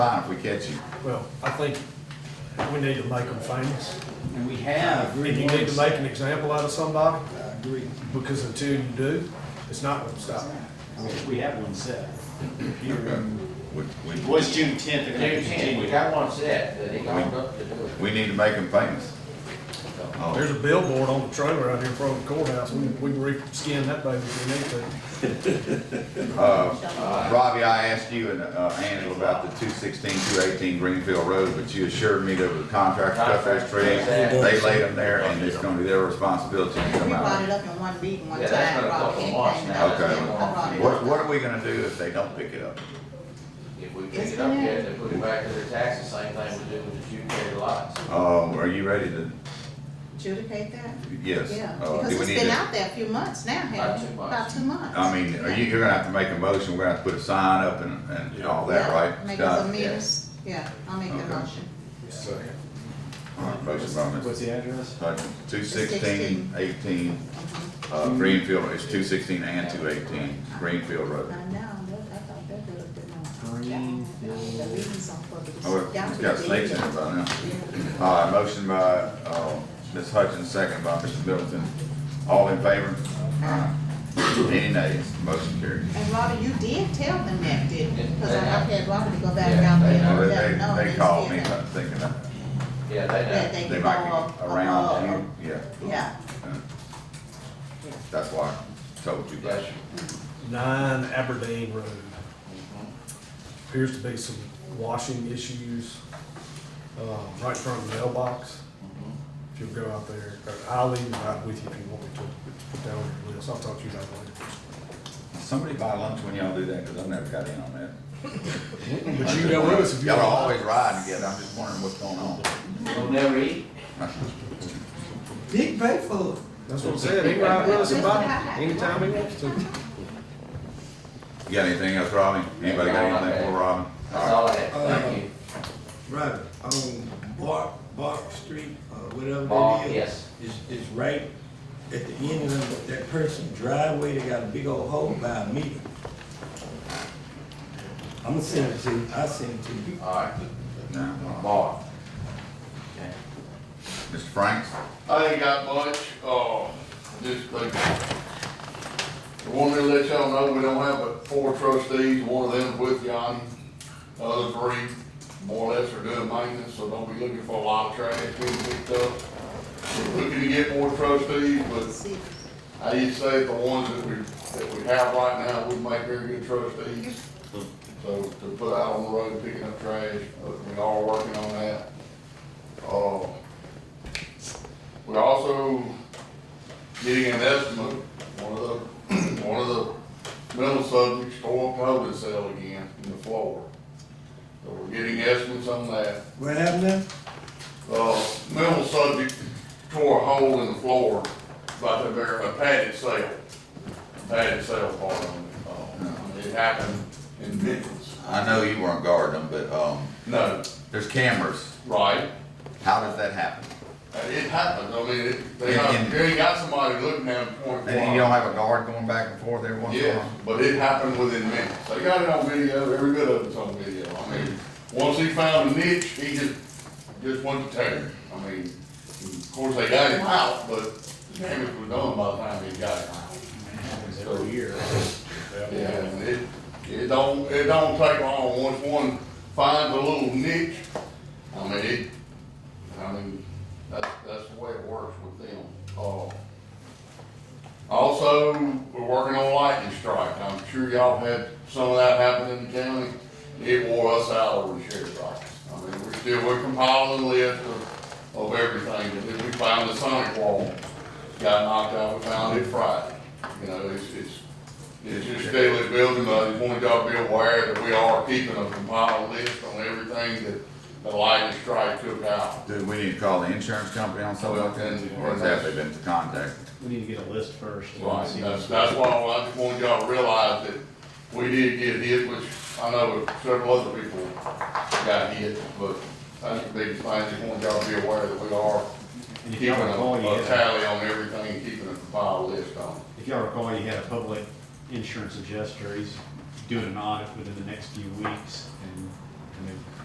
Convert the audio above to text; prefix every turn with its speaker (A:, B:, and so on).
A: fine if we catch him.
B: Well, I think we need to make them famous.
C: And we have.
B: And you need to make an example out of somebody,
C: I agree.
B: because until you do, it's not gonna stop.
C: We- We have one set. Here in-
A: We, we,
C: It was June tenth, they're gonna
D: June tenth, we
C: continue.
D: got one set, that he owned up to do it.
A: we need to make him famous. Oh,
B: There's a billboard on the trailer out here in front of the courthouse, we, we can re-skin that baby if we need to.
A: uh, Robbie, I asked you and, uh, Angela about the 216, 218 Greenfield Road, but you assured me there was a contract to cut those trees. They laid them there and it's gonna be their responsibility to
E: We
A: come
E: brought
A: out.
E: it up in one meeting, one
D: Yeah, that's
E: time,
D: been a
E: Rob,
D: couple
E: anything
D: months
E: that
D: now.
E: I
A: Okay.
E: brought it
A: What,
E: up.
A: what are we gonna do if they don't pick it up?
D: If we pick it up, we have to put it back to their taxes, same thing we do with the Jupiter lots.
A: Um, are you ready to,
E: Adjudicate that?
A: yes?
E: Yeah,
A: uh, do
E: because
A: we
E: it's
A: need
E: been
A: to-
E: out there a few months now,
D: About
E: hasn't
D: two
E: it?
D: months.
E: About two months.
A: I mean, are you, you're gonna have to make a motion, we're gonna have to put a sign up and, and all that,
E: Yeah,
A: right?
E: Make
A: Scott?
E: us a meeting, yeah, I'll make
A: Okay.
E: the motion.
A: All right, Motion by Ms.
C: What's the address?
A: Two sixteen, eighteen,
E: Uh-huh.
A: uh, Greenfield, it's two sixteen and two eighteen, Greenfield Road.
E: I know, that- I thought that looked good.
C: Greenfield.
E: The meeting's on for the-
A: Oh,
E: down
A: it's
E: to
A: got
E: the
A: snakes in
E: end.
A: it by now.
E: Yeah.
A: All right, motion by, uh, Ms. Hutchins, second by Mr. Middleton. All in favor? Aye. Any nays? Motion carried.
E: And Robert, you did tell them that, didn't you? Because I
D: They have.
E: I've had Robert to go back
D: Yeah,
E: out
D: they
E: there
D: have.
E: and
A: Well,
E: let
A: Oh, They,
E: them know.
A: they- they
E: and
A: called
E: said
A: me,
E: that-
A: I'm thinking that
D: Yeah, they know.
E: That Oh, they
A: they
E: could
A: might
E: go
A: be
E: up.
A: around
E: up,
A: June, yeah.
E: up. Yeah.
A: That's why I told you
D: Yes,
A: that.
D: sir.
B: Nine Aberdeen Road. Appears to be some washing issues, uh, right in front of the mailbox. If you'll go out there, or I'll leave it out with you if you want me to, put that on your list, I'll talk to you about it
A: Somebody buy lunch when y'all do that, cause I've never got in on that.
B: later. But you can go with us if you
A: Y'all
B: want.
A: always ride together, I'm just wondering what's going on.
D: We'll never eat.
C: Big pay for
B: That's what I'm saying, he can ride with us about anytime he wants to.
A: You got anything else, Robbie? Anybody got anything for Robin?
D: That's all I have, thank you.
F: Right, on Bark, Bark Street, uh, whatever
D: Bark,
F: that is.
D: yes.
F: Is, is right at the end of that person's driveway, they got a big old hole by a meter. I'm gonna send it to you, I'll send it to you.
D: All right,
A: No.
D: Mark.
A: Mr. Franks?
G: I ain't got much, uh, just like, wanted to let y'all know, we don't have but four trustees, one of them with Yanni. The Other three, more or less, are doing maintenance, so don't be looking for a lot of trash being picked up. We're Looking to get more trustees, but
E: See,
G: I used to say the ones that we, that we have right now, we make very good trustees. So to put out on the road picking up trash, but we are working on that. Uh, we're also getting an estimate, one of the, one of the metal subjects tore up an oven cell again in the floor. So we're getting estimates on that.
F: What happened there?
G: Uh, metal subject tore a hole in the floor by the, very- a padded cell, padded cell part on it. Uh, It happened in Memphis.
A: I know you weren't guarding them, but, um,
G: No,
A: there's cameras.
G: right?
A: How does that happen?
G: Uh, It happens, I mean, it, they,
A: And-
G: got- they got somebody looking at them point blank.
A: And you don't have a guard going back and forth every once in a
G: Yeah,
A: while?
G: but it happened within minutes. They got it on video, every bit of it's on video. I mean, once he found a niche, he just, just went to tear it. I mean, of course, they got him out, but the damage was done by the time he got him out.
C: Every year.
G: Yeah, and it, it don't, it don't take long. Once one finds a little niche, I mean, it, I mean, that, that's the way it works with them. Uh, Also, we're working on lightning strike. I'm sure y'all had some of that happen in the county. It wore us out over the sheriff's office. I mean, we're still, we're compiling a list of, of everything. And then we found the sonic wall. Got knocked out, we found it Friday. You know, it's, it's, it's just daily building, but I just want y'all to be aware that we are keeping a compiled list on everything that the lightning strike took out.
A: Do we need to call the insurance company on something like that? Or is that they've been contacted?
C: We need to get a list first.
G: Right, that's, that's why I just want y'all to realize that we did get hit, which I know several other people got hit, but that's the biggest thing, I just want y'all to be aware that we are
C: And if
G: keeping a
C: y'all recall, you
G: a
C: had,
G: tally on everything and keeping a compiled list on it.
C: if y'all recall, you had a public insurance adjuster, he's doing an audit within the next few weeks, and I mean,